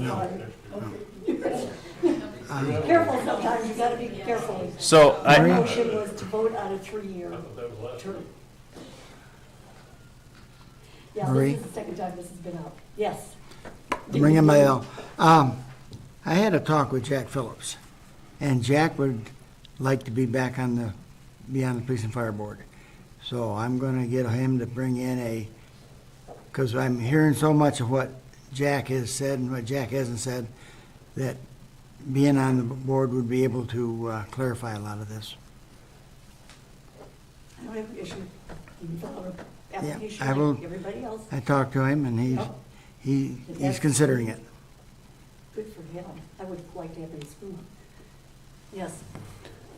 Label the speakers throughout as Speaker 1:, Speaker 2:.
Speaker 1: No. Careful sometimes, you gotta be careful.
Speaker 2: So
Speaker 1: My
Speaker 2: I,
Speaker 1: motion was to vote on a three-year term. Yeah,
Speaker 3: Marie?
Speaker 1: this is the second time this has been out. Yes.
Speaker 3: ringing my bell. Um, I had a talk with Jack Phillips, and Jack would like to be back on the, be on the police and fire board. So I'm gonna get him to bring in a, because I'm hearing so much of what Jack has said and what Jack hasn't said, that being on the board would be able to uh, clarify a lot of this.
Speaker 1: I don't have an issue. You can file an
Speaker 3: I
Speaker 1: application
Speaker 3: will-
Speaker 1: like everybody else.
Speaker 3: I talked to him, and he's, he, he's considering it.
Speaker 1: Good for him. I would like to have him in school. Yes.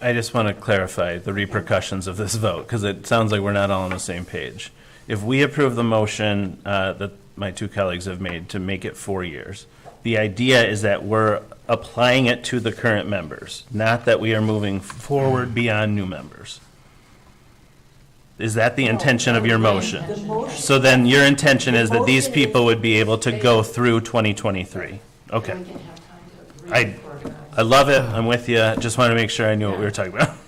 Speaker 2: I just want to clarify the repercussions of this vote, because it sounds like we're not all on the same page. If we approve the motion uh, that my two colleagues have made to make it four years, the idea is that we're applying it to the current members, not that we are moving forward beyond new members. Is that the intention of your motion?
Speaker 1: The motion.
Speaker 2: So then your intention is that these
Speaker 1: The motion is-
Speaker 2: people would be able to go through 2023? Okay. I, I love it, I'm with you, just wanted to make sure I knew what we were talking about.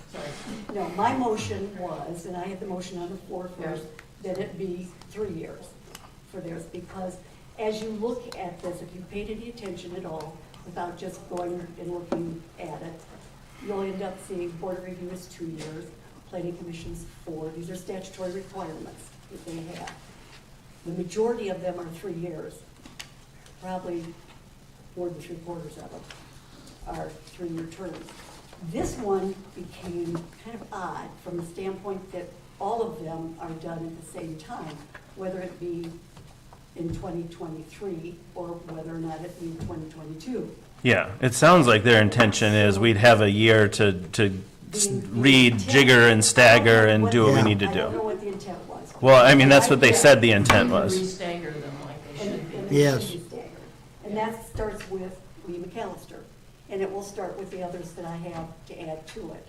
Speaker 1: No, my motion was, and I had the motion on the floor first, that it be three years for theirs, because as you look at this, if you paid any attention at all, without just going and looking at it, you'll end up seeing board of review is two years, planning commission's four, these are statutory requirements that they have. The majority of them are three years, probably more than three quarters of them are three-year terms. This one became kind of odd from the standpoint that all of them are done at the same time, whether it be in 2023 or whether or not it be in 2022.
Speaker 2: Yeah, it sounds like their intention is we'd have a year to, to s- read, jigger and stagger and do what we need to
Speaker 1: I don't know
Speaker 2: do.
Speaker 1: what the intent was.
Speaker 2: Well, I mean, that's what they said the intent was.
Speaker 4: Restagger them like they
Speaker 1: And-
Speaker 4: should
Speaker 1: and
Speaker 4: be.
Speaker 1: it should
Speaker 3: Yes.
Speaker 1: be staggered. And that starts with Lee McAllister, and it will start with the others that I have to add to it.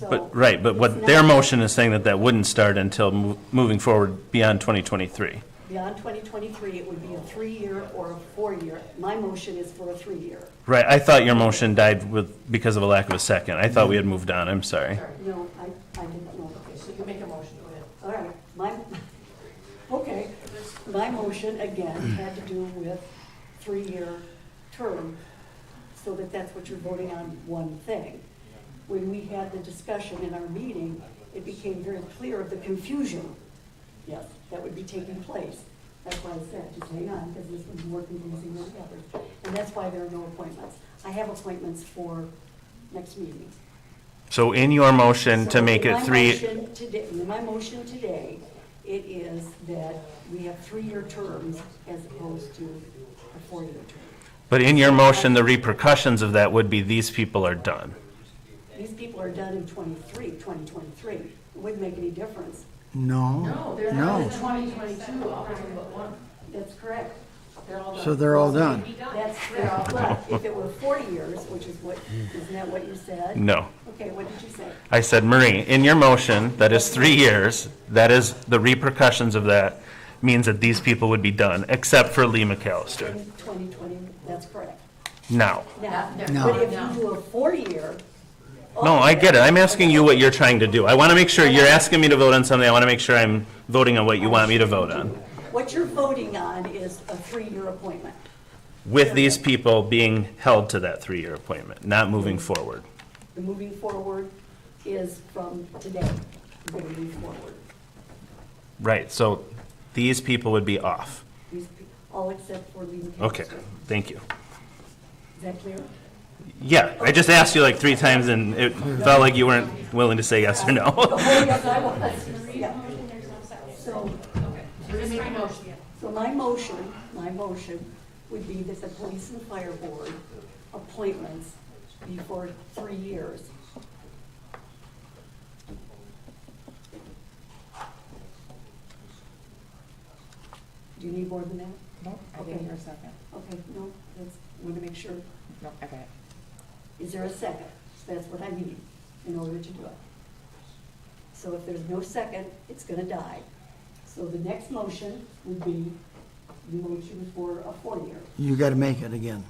Speaker 1: So
Speaker 2: Mm. But, right, but
Speaker 1: it's
Speaker 2: what
Speaker 1: not
Speaker 2: their motion is saying that that wouldn't start until mo- moving forward beyond 2023.
Speaker 1: Beyond 2023, it would be a three-year or a four-year. My motion is for a three-year.
Speaker 2: Right, I thought your motion died with, because of a lack of a second. I thought we had moved on, I'm sorry.
Speaker 4: Sorry.
Speaker 1: No, I, I didn't know.
Speaker 4: Okay, so you make a motion, go ahead.
Speaker 1: All right, my, okay, my motion again had to do with three-year term, so that that's what you're voting on, one thing. When we had the discussion in our meeting, it became very clear of the confusion, yes, that would be taking place. That's why I said, just hang on, because this was more confusing than the others. And that's why there are no appointments. I have appointments for next meeting.
Speaker 2: So in your motion to
Speaker 1: So
Speaker 2: make
Speaker 1: my
Speaker 2: it three,
Speaker 1: motion today- My motion today, it is that we have three-year terms as opposed to a four-year term.
Speaker 2: but in your motion, the repercussions of that would be these people are done.
Speaker 1: These people are done in 23, 2023. It Wouldn't make any difference.
Speaker 3: No.
Speaker 4: No, they're not in 2022, I'll bring them but one.
Speaker 1: That's correct.
Speaker 4: They're all done.
Speaker 3: So they're all done.
Speaker 1: That's correct. But if it were 40 years, which is what, isn't that what you said?
Speaker 2: No.
Speaker 1: Okay, what did you say?
Speaker 2: I said, Marie, in your motion, that is three years, that is, the repercussions of that means that these people would be done, except for Lee
Speaker 1: In
Speaker 2: McAllister,
Speaker 1: 2020, that's correct.
Speaker 2: now.
Speaker 1: Now,
Speaker 4: Not there.
Speaker 1: but if
Speaker 4: No.
Speaker 1: you do a four-year.
Speaker 2: No, I get it, I'm asking you what you're trying to do. I want to make sure, you're asking me to vote on something, I want to make sure I'm voting on what you want me to vote on.
Speaker 1: What you're voting on is a three-year appointment.
Speaker 2: With these people being held to that three-year appointment, not moving forward.
Speaker 1: The moving forward is from today, we're going to move forward.
Speaker 2: Right, so these people would be off.
Speaker 1: These pe- All except for Lee McAllister.
Speaker 2: Okay, thank you.
Speaker 1: Is that clear?
Speaker 2: Yeah, I just asked you like three times and it felt like you weren't willing to say yes or no.
Speaker 1: Oh, yes, I was, yeah. So,
Speaker 4: There's three motions.
Speaker 1: so my motion, my motion would be that the police and fire board appointments be for three years. Do you need more than that?
Speaker 5: Nope, I didn't hear a second.
Speaker 1: Okay, no, that's, want to make sure.
Speaker 5: Nope, I got it.
Speaker 1: Is there a second? That's what I need in order to do it. So if there's no second, it's gonna die. So the next motion would be
Speaker 6: motion for a four-year.
Speaker 1: You gotta make it again.